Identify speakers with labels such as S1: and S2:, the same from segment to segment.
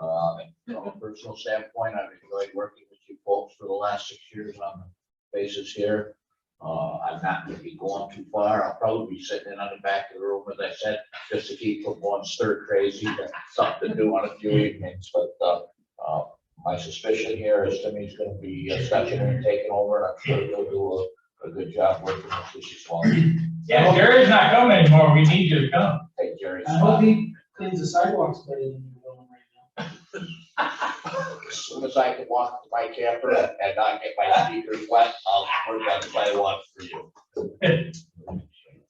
S1: Um, personal standpoint, I've enjoyed working with you folks for the last six years on the basis here. Uh, I'm not gonna be going too far. I'll probably be sitting in on the back of the room, as I said, just to keep from going stir crazy, but something to do on a few evenings, but, uh, uh, my suspicion here is Timmy's gonna be uh, stepping in and taking over, and I'm sure he'll do a, a good job working with this as well.
S2: Yeah, Jerry's not coming anymore, we need you to come.
S1: Take Jerry's
S3: I hope
S1: spot.
S3: he cleans the sidewalks better than you're doing right now.
S1: As soon as I can walk to my camper and not get my sneakers wet, I'll work on the sidewalk for you.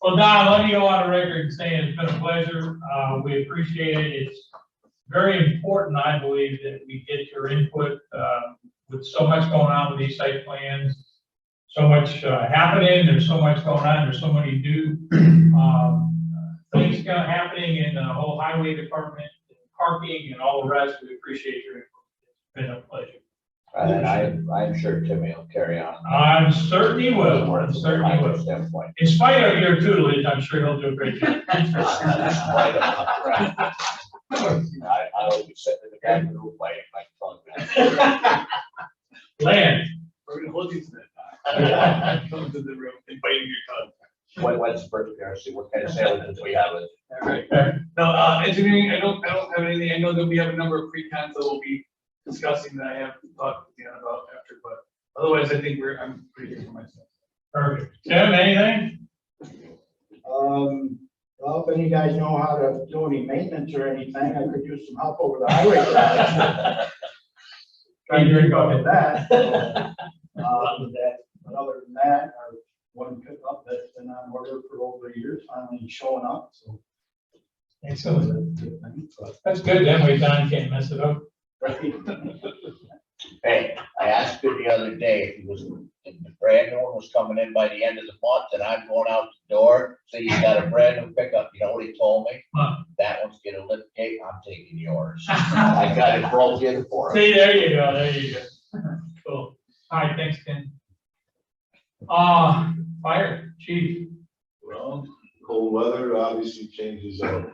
S2: Well, Don, let me go on the record saying it's been a pleasure, uh, we appreciate it, it's very important, I believe, that we get your input, uh, with so much going on with these site plans, so much, uh, happening, there's so much going on, there's so many new, um, things go- happening in the whole highway department, parking and all the rest, we appreciate your input, it's been a pleasure.
S1: And I, I'm sure Timmy will carry on.
S2: I'm certain he will, I'm certain he
S1: From my
S2: will.
S1: standpoint.
S2: In spite of your tutelage, I'm sure he'll do a great job.
S1: I, I'll be sitting in the back of the room playing my phone.
S2: Land,
S4: We're gonna hold you to
S1: Yeah.
S4: that. Come to the room, inviting your cousin.
S1: What, what's the first appearance, what kind of sandwiches we have?
S4: All right. No, uh, engineering, I don't, I don't have anything. I know that we have a number of pre-cons that we'll be discussing that I have talked to Dan about after, but otherwise I think we're, I'm pretty good for myself.
S2: perfect. Tim, anything?
S5: Um, well, if any guys know how to do any maintenance or anything, I could use some help over the highway. garage. Trying to drink up with that. Um, that, but other than that, our one pickup that's been on order for over a year finally showing up, so. that's
S2: Excellent.
S5: a good thing, but-
S2: That's good, then we, Don can't mess it up.
S1: Hey, I asked him the other day if he was, if the brand new one was coming in by the end of the month, and I'm going out the door, so you got a brand new pickup, you know what he told me?
S2: Huh.
S1: That one's gonna lift gate, I'm taking yours. I got it broke in for him.
S2: See, there you go, there you go. Cool. All right, thanks, Tim. Uh, fire, chief,
S6: Well, cold weather obviously changes our,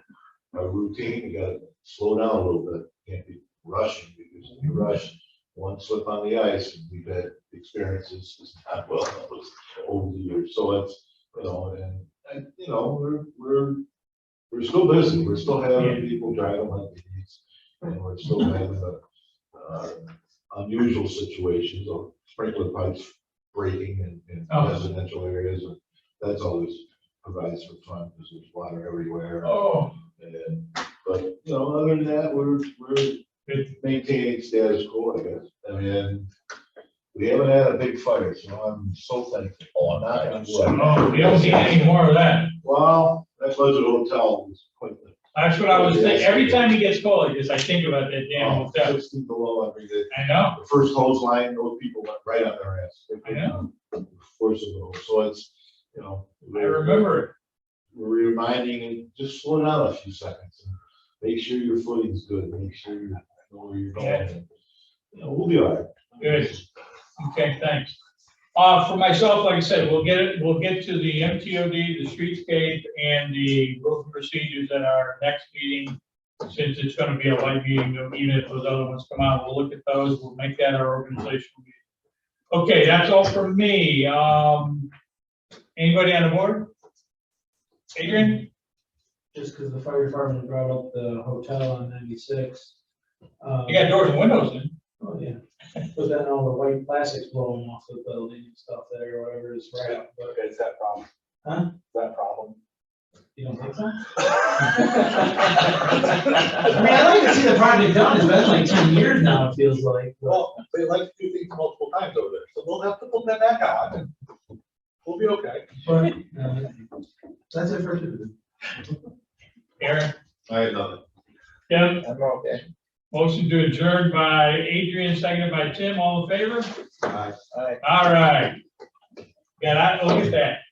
S6: our routine, we gotta slow down a little bit, can't be rushing, because if you rush, one slip on the ice, and we've had experiences, it's not well, that was over the years, so it's, you know, and, and, you know, we're, we're, we're still busy, we're still having people driving like these, and we're still having a, uh, unusual situations of sprinkler pipes breaking in, in
S2: Oh.
S6: residential areas, and that's always provides for fun, because there's water everywhere.
S2: oh,
S6: And, but, you know, other than that, we're, we're maintaining status quo, I guess. I mean, we haven't had a big fire, so I'm so thankful.
S1: Oh, I'm not gonna
S6: I'm
S1: do it.
S6: sorry.
S2: oh, we don't see any more of that.
S6: Well, that budget hotel was quite the.
S2: That's what I was thinking, every time he gets called, just I think about that damn
S6: Oh.
S2: hotel.
S6: Sixteen below every day.
S2: I know.
S6: The first hose line, those people went right on their ass. They couldn't
S2: I
S6: Force it over, so it's, you know.
S2: I remember it.
S6: we're reminding him, just slow down a few seconds. and Make sure your footing's good, make sure you know where you're going. You know, we'll be all right.
S2: Good. Okay, thanks. Uh, for myself, like I said, we'll get it, we'll get to the MTOD, the streetscape, and the rules and procedures at our next meeting. Since it's gonna be a light meeting, even if those other ones come out, we'll look at those, we'll make that our organizational meeting. Okay, that's all from me. Um, anybody on the board? Adrian?
S3: Just because the fire department brought up the hotel on ninety-six. um,
S2: You got doors and windows in.
S3: Oh, yeah. But then all the white plastics blowing off the building and stuff there, or whatever is right up, but
S4: Okay, it's that problem.
S3: Huh?
S4: That problem.
S3: you don't think so? I mean,
S4: Well,
S3: I'd like to see the project done, it's been like ten years now, it feels like, but-
S4: they like to do things multiple times over there, so we'll have to put that back on. and We'll be okay.
S3: but, uh, that's it for today.
S2: Aaron?
S6: I had nothing.
S2: Tim?
S1: I'm okay.
S2: Motion to adjourn by Adrian, seconded by Tim, all in favor?
S6: Aye.
S1: All right.
S2: All right. Yeah, I, oh, look at that.